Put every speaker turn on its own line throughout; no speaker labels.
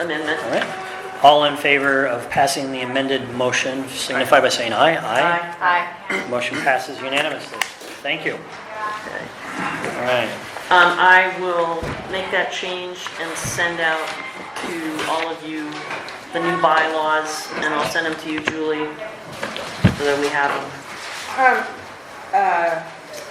amendment.
All right. All in favor of passing the amended motion signify by saying aye.
Aye.
Motion passes unanimously. Thank you.
Okay.
All right.
Um, I will make that change and send out to all of you the new bylaws, and I'll send them to you, Julie, so that we have them.
Um, uh,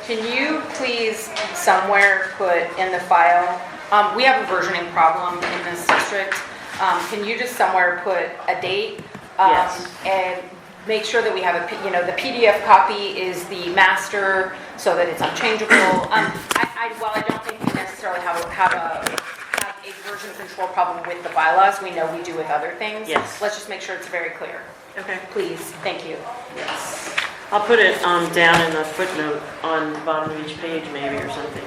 Can you please somewhere put in the file, um, we have a versioning problem in this district. Um, Can you just somewhere put a date? um,
Yes.
And make sure that we have a, P- you know, the PDF copy is the master so that it's unchangeable. Um, I, I, while I don't think we necessarily have, a- have a, have a version control problem with the bylaws, we know we do with other things.
Yes.
Let's just make sure it's very clear.
Okay.
Please, thank you.
Yes. I'll put it, um, down in the footnote on the bottom of each page maybe or something.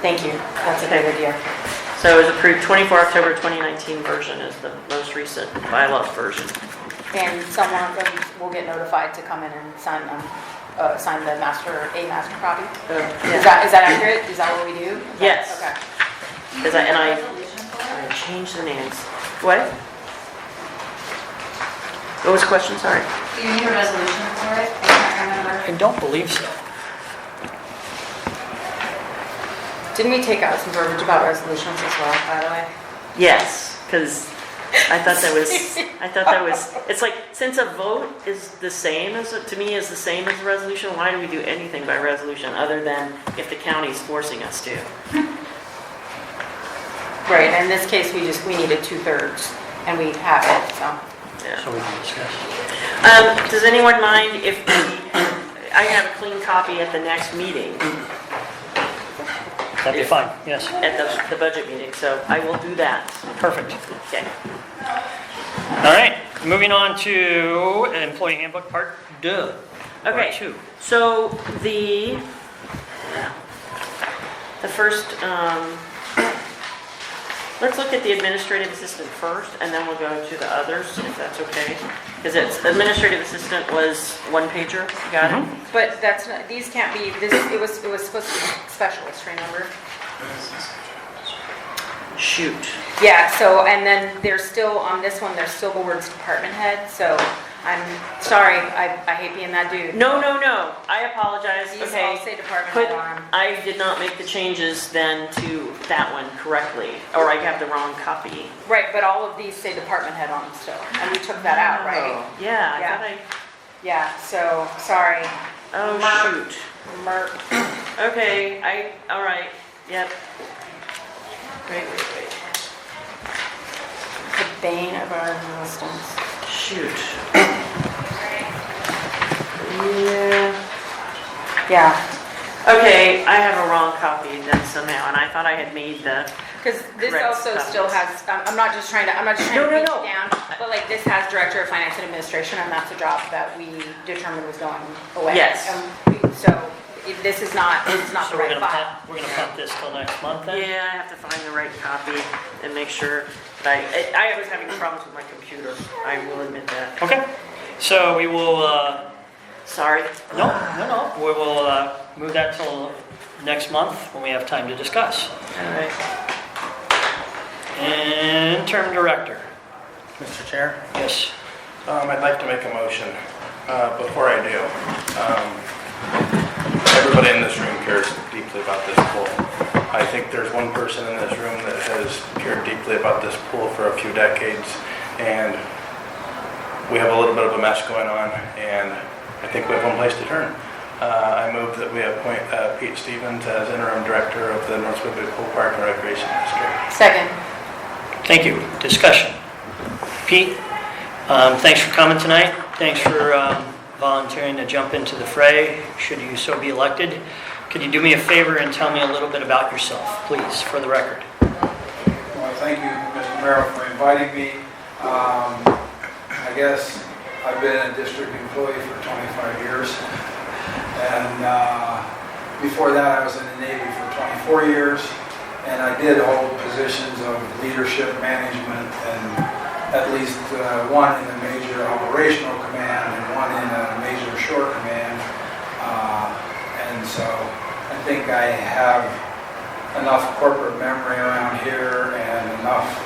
Thank you. That's a great idea.
So it was approved 24 October 2019 version is the most recent bylaw version.
And someone of them will get notified to come in and sign them, uh, sign the master, a master copy? Is that, is that accurate? Is that what we do?
Yes.
Okay.
Is that, and I, I changed the names. What? What was the question, sorry?
Do you need a resolution for it? I can't remember.
I don't believe so.
Didn't we take out some verbiage about resolutions as well, by the way?
Yes, because I thought that was, I thought that was, it's like, since a vote is the same as, to me, is the same as a resolution, why do we do anything by resolution other than if the county's forcing us to?
Right, in this case, we just, we needed two-thirds, and we have it, so.
Yeah.
So we can discuss.
Um, does anyone mind if, we- I have a clean copy at the next meeting,
That'd be fine. Yes,
at the, the budget meeting, so I will do that.
perfect.
Okay.
All right, moving on to employee handbook part two.
Okay.
Part two.
So the, the first, um, let's look at the administrative assistant first, and then we'll go to the others, if that's okay. Because it's, administrative assistant was one pager, you got it?
Mm-hmm.
But that's, not- these can't be, this, it was, it was supposed to be specialist, remember?
Shoot.
Yeah, so, and then there's still, on this one, there's still the words department head, so I'm sorry, I, I hate being that dude.
No, no, no, I apologize,
These all
okay.
say department
Put,
head on 'em.
I did not make the changes then to that one correctly, or I have the wrong copy.
Right, but all of these say department head on them still, and we took that out, right?
Oh, Yeah,
Yeah.
I
Yeah, so, sorry,
thought I, oh,
Mark.
shoot.
Merk,
Okay, I, all right, yep. Wait, wait, wait,
the bane of our existence.
shoot. Yeah,
Yeah,
okay, I have a wrong copy then somehow, and I thought I had made the,
because this
Correct
also still
comments.
has, I'm I'm not just trying to, I'm not just
No,
trying to
no,
beat it
no.
down, but like this has director of finance and administration, and that's a job that we determined was going away.
Yes.
And we- So, it- this is not, it's not
So
the
we're
right
gonna
file.
punt, we're gonna punt this till next month then?
yeah, I have to find the right copy and make sure that I, I was having problems with my computer, I will admit that.
Okay, so we will, uh,
Sorry.
no, no, no, we will uh, move that till next month when we have time to discuss.
All right.
Interim director,
Mr. Chair?
yes.
Um, I'd like to make a motion. Uh, Before I do, um, everybody in this room cares deeply about this pool. I think there's one person in this room that has cared deeply about this pool for a few decades, and we have a little bit of a mess going on, and I think we have one place to turn. Uh, I move that we appoint uh, Pete Stevens as interim director of the North Woodbury Pool Park and Recreation District.
Second.
Thank you. Discussion. Pete, um, thanks for coming tonight. Thanks for um, volunteering to jump into the fray, should you so be elected. Could you do me a favor and tell me a little bit about yourself, please, for the record?
I want to thank you, Mr. Merrill, for inviting me. Um, I guess I've been a district employee for 25 years. And uh, before that, I was in the Navy for 24 years. And I did hold positions of leadership, management, and at least uh, one in a major operational command and one in a major shore command. Uh, And so I think I have enough corporate memory around here and enough